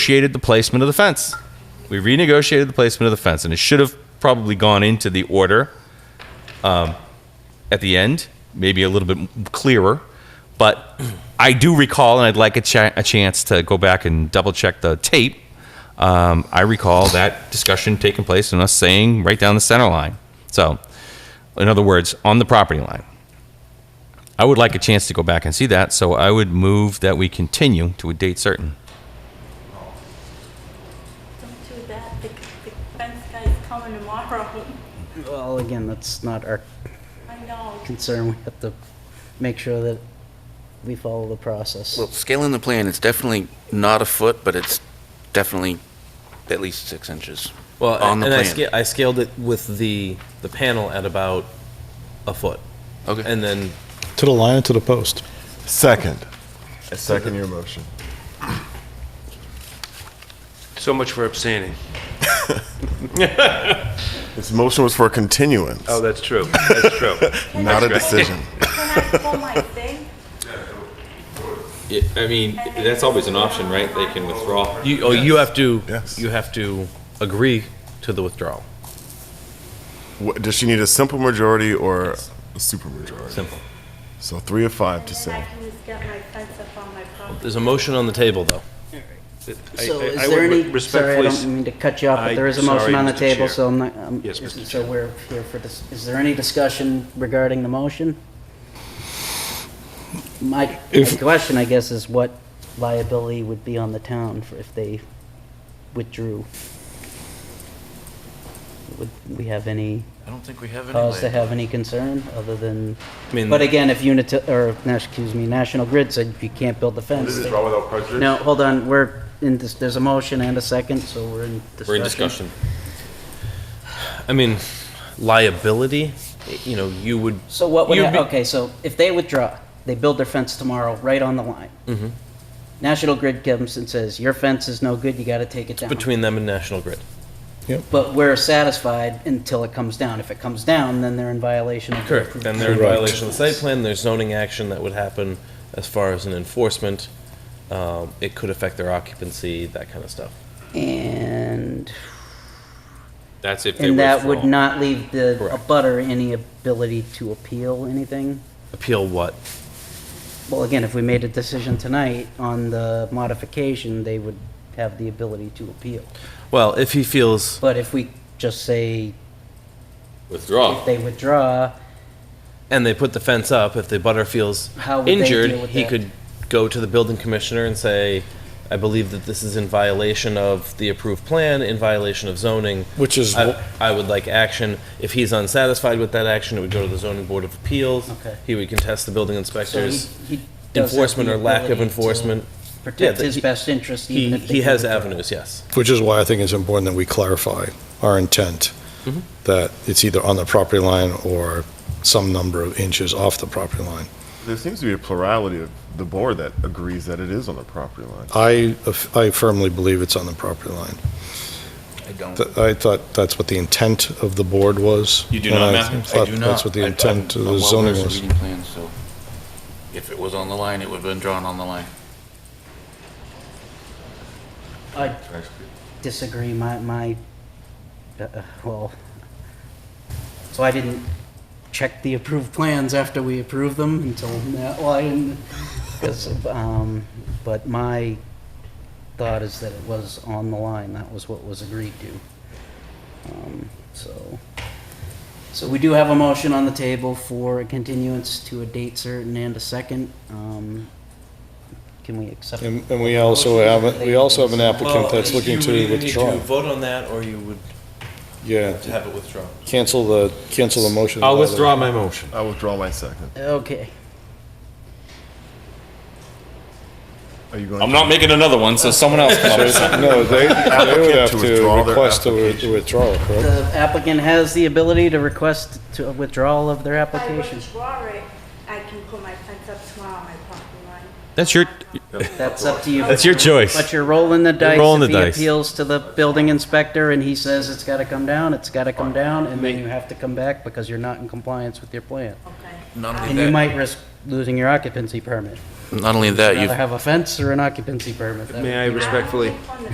renegotiated the placement of the fence. We renegotiated the placement of the fence, and it should have probably gone into the order um, at the end, maybe a little bit clearer. But I do recall, and I'd like a, cha- a chance to go back and double check the tape. Um, I recall that discussion taking place and us saying right down the center line. So, in other words, on the property line. I would like a chance to go back and see that, so I would move that we continue to a date certain. Don't do that, the, the fence guy's coming tomorrow. Well, again, that's not our I know. concern. We have to make sure that we follow the process. Well, scaling the plan, it's definitely not a foot, but it's definitely at least six inches. Well, on and the and I, plan. sca- I scaled it with the the panel at about a foot, Okay. and then To the line and to the post. Second. I second your motion. So much for abstaining. His motion was for continuance, Oh, that's true. That's true. not a decision. Can I pull my thing? I mean, that's always an option, right? They can withdraw. you oh, you have to Yes. you have to agree to the withdrawal. Wha- Does she need a simple majority or a super majority? Simple. So three of five And to then I say. can just get my fence up on my property. There's a motion on the table, though. I- So I- is I there would any, sorry, I respectfully s- don't mean to cut you off, but I- there is a motion sorry, on the Mr. table, Chair. so I'm not, um, Yes, Mr. so we're here for this. Is there any discussion regarding the motion? My my If- question, I guess, is what liability would be on the town for if they withdrew? Would we have any I don't think we have any. cause to way. have any concern other than, I mean, but again, if unit, or, no, excuse me, National Grid said you can't build the fence. they- without prejudice? no, hold on, we're in this, there's a motion and a second, so we're in discussion. We're in discussion. I mean, liability. You know, you would. So what would, You'd hap- be- okay, so if they withdraw, they build their fence tomorrow, right on the line. Mm-hmm. National Grid comes and says, your fence is no good, you gotta take it down. between them and National Grid. But we're satisfied until it comes down. If it comes down, then they're in violation of. the approved Then they're in Correct. violation of the site plan. There's zoning action that would happen as far as an enforcement. Um, it could affect their occupancy, that kind of stuff. And, That's if they and that would withdraw. not leave the Correct. butter any ability to appeal anything? Appeal what? Well, again, if we made a decision tonight on the modification, they would have the ability to appeal. Well, if he feels But if we just say if Withdraw. they withdraw, and they put the fence up, if the butter feels How would they injured, deal with he that? could go to the building commissioner and say, I believe that this is in violation of the approved plan, in violation of zoning. Which is I, wh- I would like action. If he's unsatisfied with that action, it would go to the zoning board of appeals. Okay. He would contest the so building he, inspectors. he does have Enforcement the or lack of ability to enforcement. Yeah, Protect that his he- best interest He, even if they. he has withdraw. avenues, yes. Which is why I think it's important that we clarify our intent, that it's either on the property line or some number of inches off the property line. There seems to be a plurality of the board that agrees that it is on the property line. I, I firmly believe it's on the property line. I don't. Th- I thought that's what the intent of the board was. You do and not, I Matthew? I thought I do not. That's what the I- I'm intent of not the well zoning versed in was. reading plans, so If it was on the line, it would have been drawn on the line. I disagree, my, my, uh, uh, well, so I didn't check the approved plans after we approved them until now, well, I didn't, 'cause, um, but my thought is that it was on the line, that was what was agreed to. Um, So, so we do have a motion on the table for a continuance to a date certain and a second. Um, Can we accept? And and we also have, a- we also have an applicant that's looking to You withdraw. vote on that, or you would Yeah, have it withdrawn. cancel the, cancel the motion. I'll withdraw my motion. I withdraw my second. Okay. Are you going? I'm not making another one, so someone else can. No, they, they would applicant have to to withdraw their request a wi- withdrawal, correct? The applicant has the ability to request to a withdrawal of their If I application. withdraw it, I can put my fence up tomorrow on my property line. That's your, That's up to you. that's your But choice. you're rolling the dice. rolling If the he dice. appeals to the building inspector and he says it's gotta come down, it's gotta come down, and then you have to come back because you're not in compliance with your plan. Okay. Not I- only And you that- might risk losing your occupancy permit. Not only that, you've Rather have a fence or an occupancy permit. That May I would be- I don't respectfully think on the